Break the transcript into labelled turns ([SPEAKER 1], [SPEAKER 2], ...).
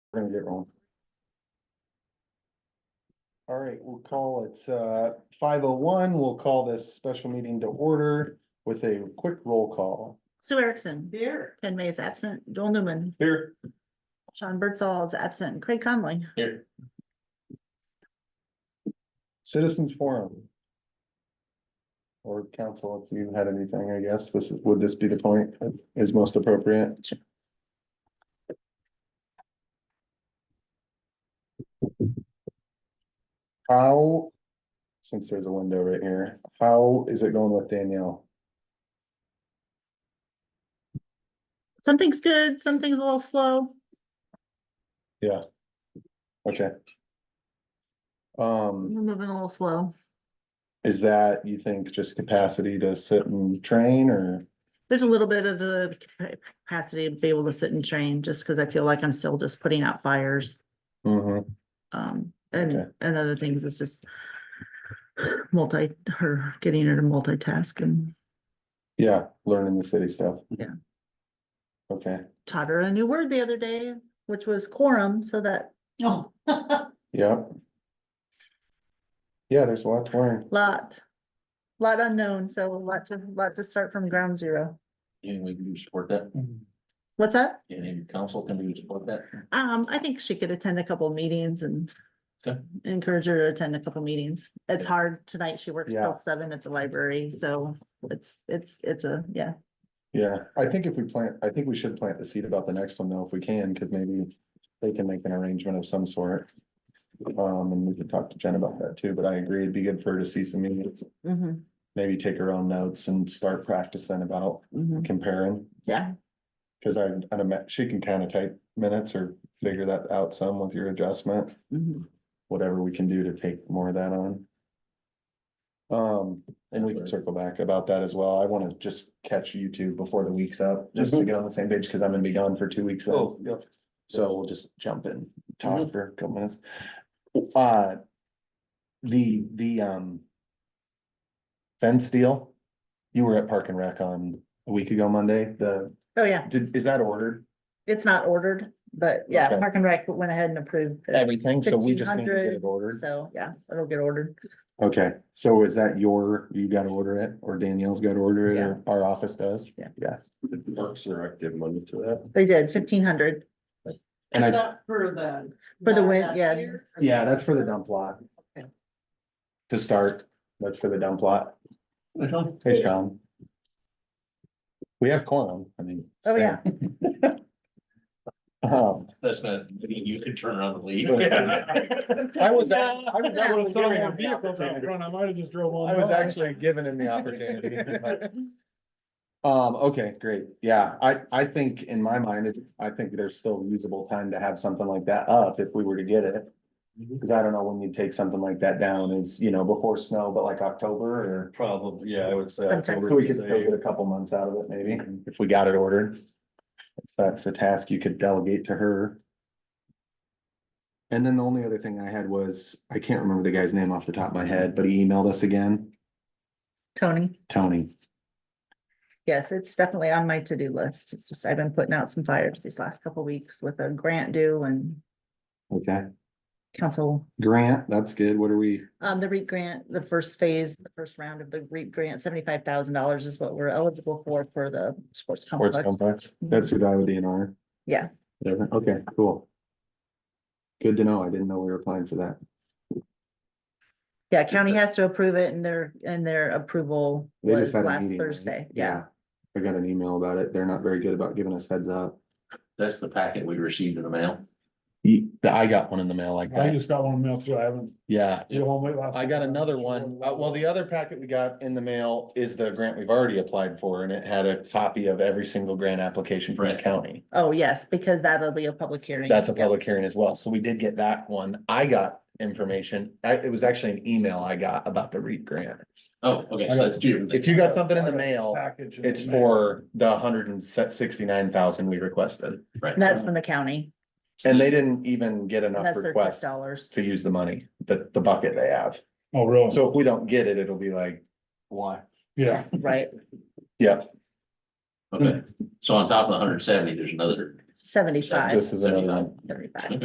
[SPEAKER 1] we're gonna get wrong. All right, we'll call it, uh, five oh one. We'll call this special meeting to order with a quick roll call.
[SPEAKER 2] Sue Erickson,
[SPEAKER 3] Here.
[SPEAKER 2] Ken May is absent, Joel Newman,
[SPEAKER 1] Here.
[SPEAKER 2] Sean Birdsall is absent, Craig Conley.
[SPEAKER 1] Here. Citizens Forum. Or council, if you had anything, I guess, this is, would this be the point that is most appropriate? How, since there's a window right here, how is it going with Danielle?
[SPEAKER 2] Something's good, something's a little slow.
[SPEAKER 1] Okay. Um,
[SPEAKER 2] We're moving a little slow.
[SPEAKER 1] is that, you think, just capacity to sit and train or?
[SPEAKER 2] There's a little bit of the capacity to be able to sit and train, just because I feel like I'm still just putting out fires.
[SPEAKER 1] Mhm.
[SPEAKER 2] Um, and,
[SPEAKER 1] Okay.
[SPEAKER 2] and other things, it's just multi, her getting her to multitask and
[SPEAKER 1] Yeah, learning the city stuff.
[SPEAKER 2] Yeah.
[SPEAKER 1] Okay,
[SPEAKER 2] taught her a new word the other day, which was quorum, so that
[SPEAKER 3] Oh.
[SPEAKER 1] yeah. Yeah, there's a lot to learn.
[SPEAKER 2] lot, lot unknown, so a lot to, lot to start from ground zero.
[SPEAKER 4] Anyway, can you support that?
[SPEAKER 2] What's that?
[SPEAKER 4] Any council, can we support that?
[SPEAKER 2] Um, I think she could attend a couple of meetings and
[SPEAKER 4] Okay.
[SPEAKER 2] encourage her to attend a couple of meetings. It's
[SPEAKER 4] Okay.
[SPEAKER 2] hard tonight. She works
[SPEAKER 1] Yeah.
[SPEAKER 2] till seven at the library, so it's, it's, it's a, yeah.
[SPEAKER 1] Yeah, I think if we plant, I think we should plant the seed about the next one though, if we can, because maybe they can make an arrangement of some sort. Um, and we could talk to Jen about that too, but I agree, it'd be good for her to see some meetings,
[SPEAKER 2] Mhm,
[SPEAKER 1] maybe take her own notes and start practicing about
[SPEAKER 2] mhm.
[SPEAKER 1] comparing.
[SPEAKER 2] Yeah,
[SPEAKER 1] Cause I, I'd imagine, she can kind of type minutes or figure that out some with your adjustment.
[SPEAKER 2] mhm.
[SPEAKER 1] whatever we can do to take more of that on. Um, and we can circle back about that as well. I wanna just catch you two before the week's up, just to get on the same page, cause I'm gonna be gone for two weeks. then.
[SPEAKER 4] yeah.
[SPEAKER 1] So we'll just jump in, talk for a couple minutes. Uh. The, the, um. Fence deal, you were at Park and Rec on a week ago Monday, the,
[SPEAKER 2] Oh, yeah.
[SPEAKER 1] did, is that ordered?
[SPEAKER 2] It's not ordered, but yeah,
[SPEAKER 1] Okay.
[SPEAKER 2] Park and Rec went ahead and approved. it.
[SPEAKER 1] Everything, so we just need to get it
[SPEAKER 2] 1500,
[SPEAKER 1] ordered.
[SPEAKER 2] So, yeah, it'll get ordered.
[SPEAKER 1] Okay, so is that your, you gotta order it, or Danielle's gotta order it, or our office does?
[SPEAKER 2] Yeah.
[SPEAKER 1] Yeah,
[SPEAKER 4] Parks and Rec give money to that.
[SPEAKER 2] They did fifteen hundred.
[SPEAKER 1] and I,
[SPEAKER 3] For the.
[SPEAKER 2] For the
[SPEAKER 3] not
[SPEAKER 2] win-
[SPEAKER 3] that
[SPEAKER 2] yeah.
[SPEAKER 3] year?
[SPEAKER 1] yeah, that's for the dump lot.
[SPEAKER 3] Okay.
[SPEAKER 1] To start, that's for the dump lot. Hey, Sean. We have quorum, I mean.
[SPEAKER 2] Oh,
[SPEAKER 1] so-
[SPEAKER 2] yeah.
[SPEAKER 1] Um,
[SPEAKER 4] That's not, I mean, you could turn around and leave.
[SPEAKER 1] I was, I was
[SPEAKER 5] I was
[SPEAKER 1] actually
[SPEAKER 5] sorry,
[SPEAKER 1] given
[SPEAKER 5] our
[SPEAKER 1] him the
[SPEAKER 5] vehicle's out
[SPEAKER 1] opportunity.
[SPEAKER 5] front, I might have just drove on.
[SPEAKER 1] I was
[SPEAKER 5] by.
[SPEAKER 1] actually given him the opportunity. but- Um, okay, great, yeah, I, I think in my mind, it- I think there's still usable time to have something like that up if we were to get it. Cause I don't know when you take something like that down is, you know, before snow, but like October or.
[SPEAKER 4] Probably, yeah, I would say.
[SPEAKER 2] Sometime.
[SPEAKER 1] So we could still get a couple months out of it maybe, if we got it ordered. If That's a task you could delegate to her. And then the only other thing I had was, I can't remember the guy's name off the top of my head, but he emailed us again,
[SPEAKER 2] Tony,
[SPEAKER 1] Tony.
[SPEAKER 2] yes, it's definitely on my to-do list. It's just, I've been putting out some fires these last couple weeks with a grant due and
[SPEAKER 1] Okay,
[SPEAKER 2] council
[SPEAKER 1] Grant, that's good, what are we?
[SPEAKER 2] Um, the REIT grant, the first phase, the first round of the REIT grant, seventy-five thousand dollars is what we're eligible for, for the sports
[SPEAKER 1] Sports
[SPEAKER 2] complex.
[SPEAKER 1] complex, that's who died with DNR.
[SPEAKER 2] Yeah.
[SPEAKER 1] Whatever. Okay, cool. Good to know, I didn't know we were applying for that.
[SPEAKER 2] Yeah, county has to approve it and their, and their approval
[SPEAKER 1] They just
[SPEAKER 2] was
[SPEAKER 1] had a
[SPEAKER 2] last
[SPEAKER 1] meeting, right?
[SPEAKER 2] Thursday, yeah.
[SPEAKER 1] I got an email about it, they're not very good about giving us heads up.
[SPEAKER 4] That's the packet we received in the mail.
[SPEAKER 1] Ye- I got one in the mail like
[SPEAKER 5] I
[SPEAKER 1] that,
[SPEAKER 5] just got one mail too, I haven't,
[SPEAKER 1] yeah.
[SPEAKER 5] you know, wait last.
[SPEAKER 1] I got another one, Uh, well, the other packet we got in the mail is the grant we've already applied for, and it had a copy of every single grant application from the
[SPEAKER 4] Right.
[SPEAKER 1] county.
[SPEAKER 2] Oh, yes, because that'll be a public hearing.
[SPEAKER 1] That's a
[SPEAKER 2] yeah.
[SPEAKER 1] public hearing as well, so we did get that one, I got information, I, it was actually an email I got about the REAP grant.
[SPEAKER 4] Oh, okay, so that's June.
[SPEAKER 1] If you got something in the mail,
[SPEAKER 5] Package. in the
[SPEAKER 1] it's
[SPEAKER 5] mail.
[SPEAKER 1] for the hundred and sixty-nine thousand we requested,
[SPEAKER 4] Right.
[SPEAKER 2] And That's from the county,
[SPEAKER 1] and they didn't even get
[SPEAKER 2] and
[SPEAKER 1] enough
[SPEAKER 2] that's their tax
[SPEAKER 1] requests
[SPEAKER 2] dollars.
[SPEAKER 1] to use the money, the, the bucket they have.
[SPEAKER 5] Oh, really?
[SPEAKER 1] So if we don't get it, it'll be like, why?
[SPEAKER 5] Yeah,
[SPEAKER 2] Right,
[SPEAKER 1] Yeah,
[SPEAKER 4] Okay, so on top of the hundred and seventy, there's another
[SPEAKER 2] seventy-five,
[SPEAKER 1] this is another one.
[SPEAKER 2] seventy-five.